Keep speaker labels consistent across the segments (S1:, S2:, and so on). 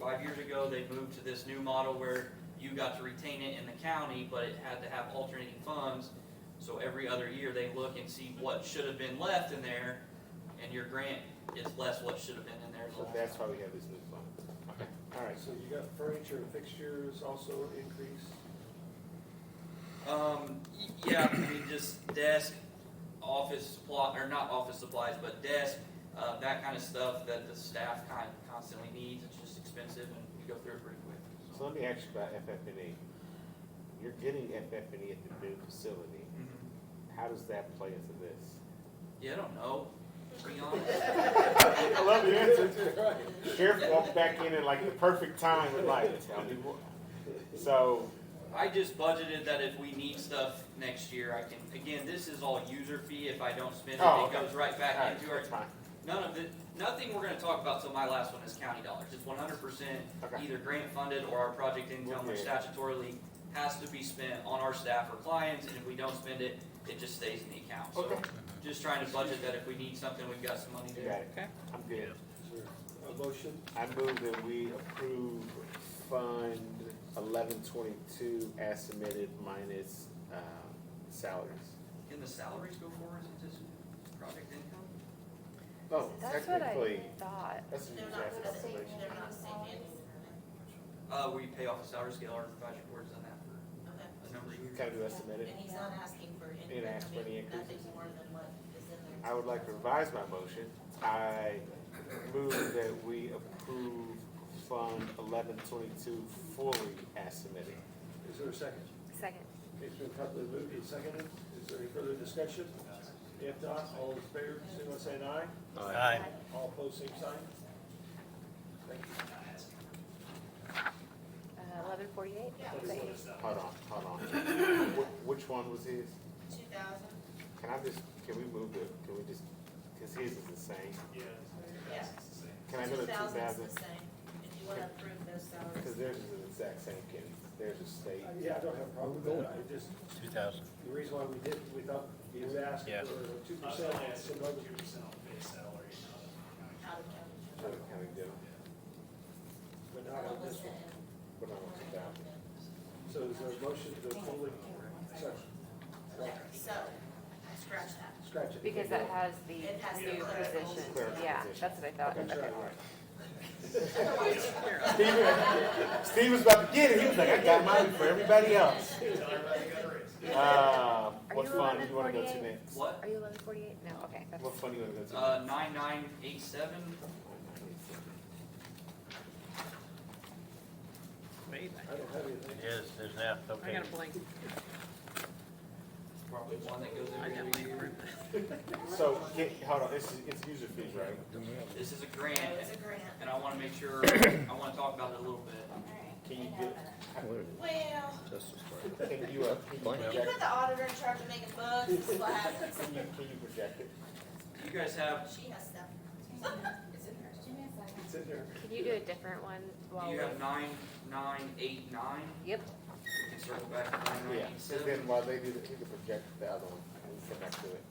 S1: five years ago, they moved to this new model where you got to retain it in the county, but it had to have alternating funds. So every other year, they look and see what should have been left in there, and your grant is less what should have been in there. the
S2: So
S1: last
S2: that's
S1: time.
S2: why we have this new fund.
S3: Okay.
S2: All right,
S4: So you got furniture and fixtures also increased?
S1: Um, y- yeah, I mean, just desk, office supply, or not office supplies, but desk, uh, that kind of stuff that the staff kind constantly needs, it's just expensive and you go through it pretty quick.
S2: so let me ask you about FFNE. E. You're getting FFNE E at the new facility. How does that play into this?
S1: Mm-hmm. Yeah, I don't know, to be honest.
S2: I love your answer
S4: Right.
S2: too. Sheriff walked back in at like the perfect time and like, tell me what. So,
S1: I just budgeted that if we need stuff next year, I can, again, this is all user fee, if I don't spend it,
S2: Oh,
S1: it
S2: okay.
S1: goes right
S2: all
S1: back
S2: right,
S1: into our,
S2: that's fine.
S1: none of it, nothing we're gonna talk about till my last one is county dollars, it's one hundred percent
S2: Okay,
S1: either grant funded or our project income, which
S2: Okay.
S1: statutorily has to be spent on our staff or clients, and if we don't spend it, it just stays in the account. So
S2: Okay.
S1: just trying to budget that if we need something, we've got some money
S2: you got
S1: there.
S2: it. I'm good.
S4: Sure. A motion?
S2: I move that we approve Fund eleven twenty-two as submitted minus, um, salaries.
S1: Can the salaries go forward since it's project income?
S2: Oh,
S5: That's what I
S2: technically,
S5: thought.
S2: that's an
S6: They're not
S2: exact
S6: gonna say,
S2: calculation.
S6: they're not saying
S1: Uh, we pay off a salary scale, our advisory board's done that for
S6: anything.
S1: a number of years.
S2: Kind of estimated.
S6: And he's not asking for any,
S2: Didn't ask for
S6: I
S2: any
S6: mean, nothing
S2: increases.
S6: more than what is in there.
S2: I would like to revise my motion. I move that we approve Fund eleven twenty-two fully as submitted.
S4: Is there a second?
S5: Second.
S4: It's been properly moved and seconded. Is there any further discussion? If not, all in favor, signal by saying aye.
S5: uh,
S7: Aye.
S4: All opposed, same sign. Thank you.
S5: Eleven forty-eight?
S2: Hold on, hold on. Wh- Which one was his?
S6: Two thousand,
S2: Can I just, can we move it, can we just, cause his is the same.
S6: yeah.
S2: Can I go to two
S6: 2,000 is
S2: thousand?
S6: the same, if you wanna approve those
S2: Cause
S6: salaries.
S2: theirs is the exact same, Ken. Theirs is state.
S4: Yeah, I don't have a problem with that. I just,
S7: Two thousand.
S4: the reason why we did, we thought he was asked
S7: Yeah.
S4: for two
S8: I was
S4: percent.
S8: gonna ask you about your percent on base salary, not on
S6: Out of county.
S2: Trying to kind of do,
S4: But not on
S6: What
S4: this
S6: was
S4: one.
S6: it in-
S2: but not on two thousand.
S4: So is there a motion to fully, sorry,
S6: Okay, so, scratch that.
S4: scratch it.
S5: Because that has the
S6: It has the
S5: new
S6: clerical.
S5: position.
S2: Clerical
S5: Yeah,
S2: position.
S5: that's what I thought.
S2: Okay,
S5: Okay.
S2: all right. Steve, Steve was about to get it. He was like, I got mine for everybody else.
S8: base. Tell everybody you got a raise.
S2: Uh,
S5: Are
S2: what
S5: you
S2: fund
S5: eleven
S2: you wanna go to
S5: forty-eight?
S2: next?
S1: What?
S5: Are you eleven forty-eight? No, okay. that's-
S2: What fund you wanna go to?
S1: Uh, nine nine eight seven,
S4: I don't have anything.
S7: Yes, there's that, okay.
S1: probably one that goes every year.
S2: So, get, hold on, it's, it's user fees, right?
S1: This is a
S6: No,
S1: grant,
S6: it's a grant.
S1: and I wanna make sure, I wanna talk about it a little bit.
S2: Can you get,
S6: Well,
S2: can you, uh, can you
S6: when you put
S2: project,
S6: the auditor in charge of making books, this is what happens.
S2: can you, can you project it?
S1: You guys have,
S6: She has stuff. It's in there.
S4: It's in there.
S5: Can you do a different one while
S1: you
S5: we?
S1: have nine nine eight nine,
S5: Yep,
S1: we can circle back to nine
S2: Yeah,
S1: nine eight
S2: so
S1: seven.
S2: then while they do that, you can project the other one, and we come back to it.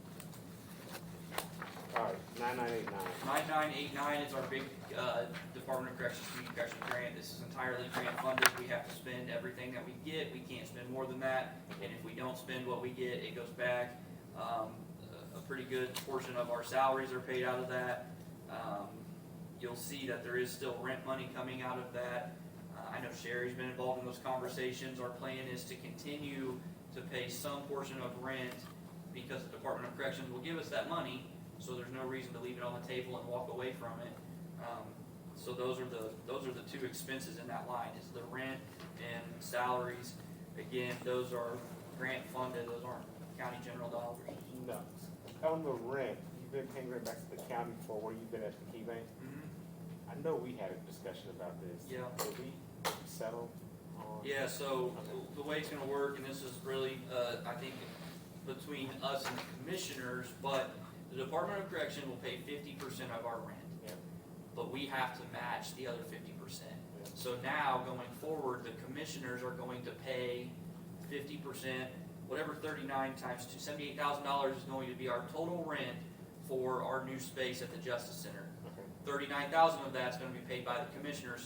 S2: All right, nine nine eight nine.
S1: Nine nine eight nine is our big, uh, Department of Corrections Community Corrections grant, this is entirely grant funded, we have to spend everything that we get, we can't spend more than that, and if we don't spend what we get, it goes back. Um, a- a pretty good portion of our salaries are paid out of that. Um, you'll see that there is still rent money coming out of that. Uh, I know Sherry's been involved in those conversations, our plan is to continue to pay some portion of rent because the Department of Corrections will give us that money, so there's no reason to leave it on the table and walk away from it. Um, so those are the, those are the two expenses in that line, is the rent and salaries. Again, those are grant funded, those aren't county general dollars.
S2: No, on the rent, you've been paying rent back to the county for where you've been at the key bank? I know we had a discussion about this.
S1: Yeah.
S2: Did we settle on?
S1: Yeah, so the way it's gonna work, and this is really, uh, I think, between us and the commissioners, but the Department of Correction will pay fifty percent of our rent.
S2: Yep.
S1: But we have to match the other fifty percent. So now, going forward, the commissioners are going to pay fifty percent, whatever thirty-nine times two, seventy-eight thousand dollars is going to be our total rent for our new space at the Justice Center.
S2: Okay.
S1: Thirty-nine thousand of that's gonna be paid by the commissioners,